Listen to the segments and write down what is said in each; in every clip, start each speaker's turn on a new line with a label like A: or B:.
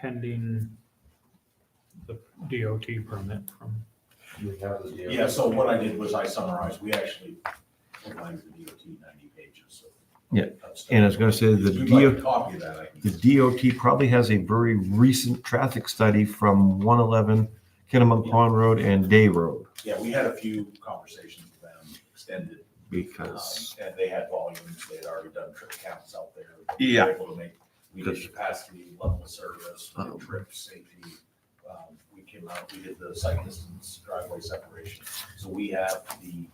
A: pending the DOT permit from,
B: We have the deal.
C: Yeah, so what I did was I summarized, we actually provided the DOT ninety pages of.
D: Yeah,
C: of stuff.
D: And I was gonna say the
C: If you'd like
D: DOT,
C: a Copy of that, I can.
D: the DOT probably has a very recent traffic study from one eleven Kinnamunk Pond Road and Day Road.
C: Yeah, we had a few conversations with them, extended, um,
D: Because,
C: and they had volumes, they had already done trip counts out there.
D: Yeah.
C: They were Able to make, we did capacity, level of service, we did
D: Um.
C: trip safety. Um, We came out, we did the site distance driveway separation, so we have the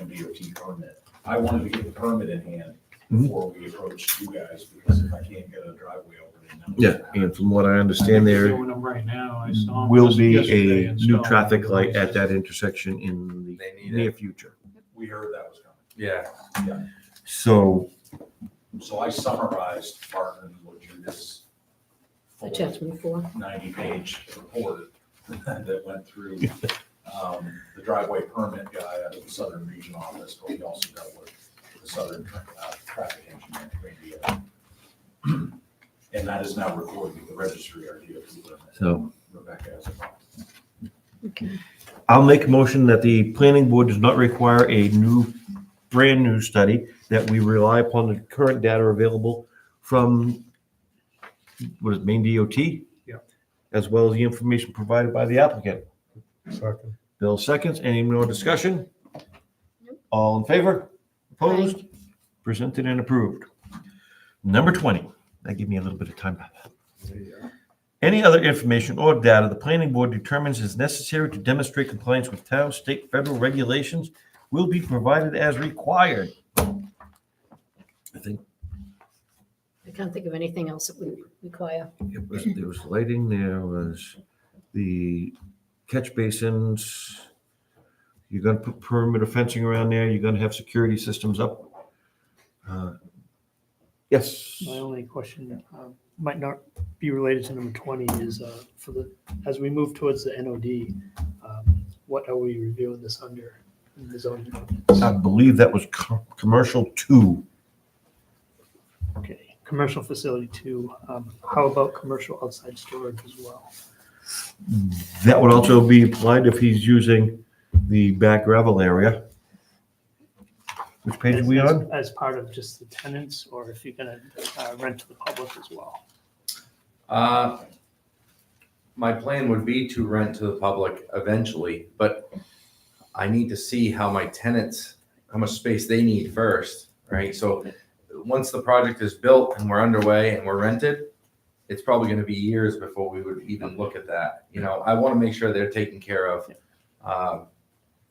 C: MDOT permit. I wanted to get the permit in hand
D: Mhm.
C: before we approached you guys, because if I can't get a driveway open. then-
D: yeah, and from what I
A: they're
D: understand, there
A: doing them right now. I saw 'em
D: will
A: just
D: be
A: yesterday
D: a new
A: installing
D: traffic
A: the
D: light at
A: devices.
D: that intersection in the
B: They need
D: near
B: it.
D: future.
C: We heard that was coming.
B: Yeah,
D: So,
C: So I summarized Martin Lajudis. full
E: Attachment four.
C: Ninety-page report that went through um, the driveway permit guy out of the Southern Region Office, but we also dealt with the Southern uh, Traffic Engineering Radio. And that is now recorded with the registry, our DOT permit.
D: So-
C: Rebecca has a copy.
E: Okay.
D: I'll make a motion that the planning board does not require a new, brand-new study, that we rely upon the current data available from, what is it, Maine DOT?
A: Yep.
D: As well as the information provided by the applicant.
A: Second.
D: Bill seconds, any more discussion? All in favor? Opposed? Presented and approved. Number 20, that gave me a little bit of time. Any other information or data the planning board determines is necessary to demonstrate compliance with town, state, federal regulations will be provided as required. I think
E: I can't think of anything else that we require.
D: it was, there was lighting, there was the catch basins. You're gonna put perimeter fencing around there, you're gonna have security systems up. Uh, Yes,
F: My only question, um, might not be related to number 20, is uh, for the, as we move towards the NOD, um, what are we reviewing this under in the zoning
D: I
F: ordinance?
D: believe that was co- commercial two.
F: Okay, commercial facility two, um, how about commercial outside storage as well?
D: That would also be applied if he's using the back gravel area. Which page are
F: As-
D: we
F: as-
D: on?
F: As part of just the tenants, or if you're gonna uh, rent to the public as well?
B: uh, my plan would be to rent to the public eventually, but I need to see how my tenants, how much space they need first, right? So once the project is built and we're underway and we're rented, it's probably gonna be years before we would even look at that. You know, I wanna make sure they're taken care of. Um,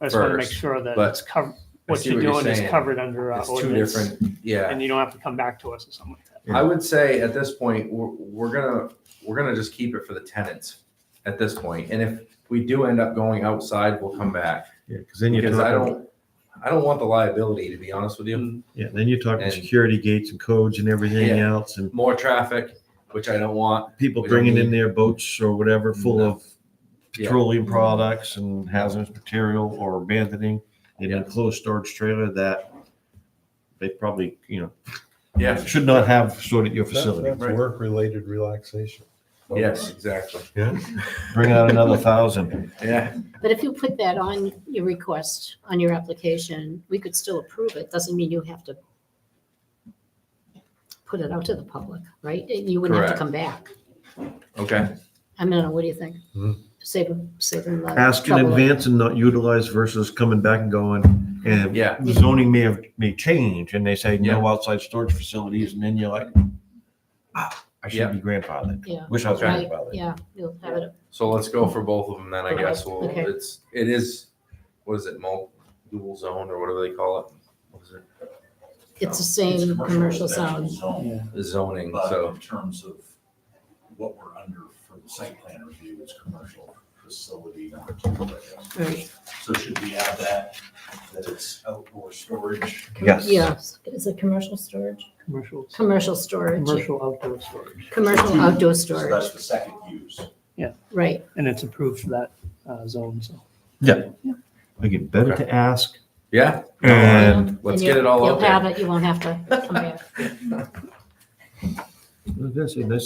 F: I just wanna make
B: First,
F: sure that
B: but
F: it's covered,
B: I
F: what
B: see
F: you're
B: what you're
F: doing is
B: saying.
F: covered under our
B: It's two
F: ordinance,
B: different, yeah.
F: and you don't have to come back to us or something like that.
D: Yeah.
B: I would say at this point, we're, we're gonna, we're gonna just keep it for the tenants at this point. And if we do end up going outside, we'll come back.
D: Yeah, because then you're
B: Because I
D: talking,
B: don't, I don't want the liability, to be honest with you.
D: yeah, then you're talking
B: And-
D: security gates and codes and everything
B: Yeah.
D: else and
B: More traffic, which I don't want.
D: people
B: We don't
D: bringing in
B: need-
D: their boats or whatever full
B: No.
D: of
B: Yeah.
D: petroleum products and hazardous material or abandoning an
B: Yeah.
D: enclosed storage trailer that they probably, you know,
B: Yeah,
D: should not have stored at your
G: That-
D: facility.
G: That's work-related relaxation.
B: yes, exactly.
D: Bring out another thousand.
B: Yeah,
E: But if you put that on your request, on your application, we could still approve it. Doesn't mean you have to put it out to the public, right? You wouldn't have to
B: Correct.
E: come back.
B: okay.
E: I mean, I don't know, what do you think?
G: Hmm.
E: Save them, save them the
D: Ask in
E: trouble.
D: advance and not utilize versus coming back and going and
B: Yeah.
D: the zoning may have, may change and they say no outside storage facilities and then you're like, ah, I should
B: Yeah.
D: be grandfathered.
E: Yeah,
D: Wish I was
B: Okay.
E: right,
D: grandfathered.
E: yeah, you'll have it.
B: So let's go for both of them then, I guess. Well,
E: Okay.
B: it's, it is, what is it, mul, dual zone or whatever they call it? What is it?
E: It's the same commercial sound.
C: zone.
B: Zoning,
C: But
B: so,
C: in terms of what we're under for the site plan review is commercial facility number two. I guess.
E: Right.
C: So should we add that, that it's outdoor storage?
D: Yes.
E: Yes, is it commercial storage?
F: Commercial,
E: Commercial storage,
F: commercial outdoor storage,
E: commercial outdoor
C: So
E: storage,
C: that's the second use.
E: right.
F: and it's approved for that uh, zone, so.
D: Again, better
B: Okay.
D: to ask
B: yeah,
D: and
B: let's
E: And
B: get it all
E: you'll-
B: out there.
E: You'll have it, you won't have to come back.
D: I was gonna say, nice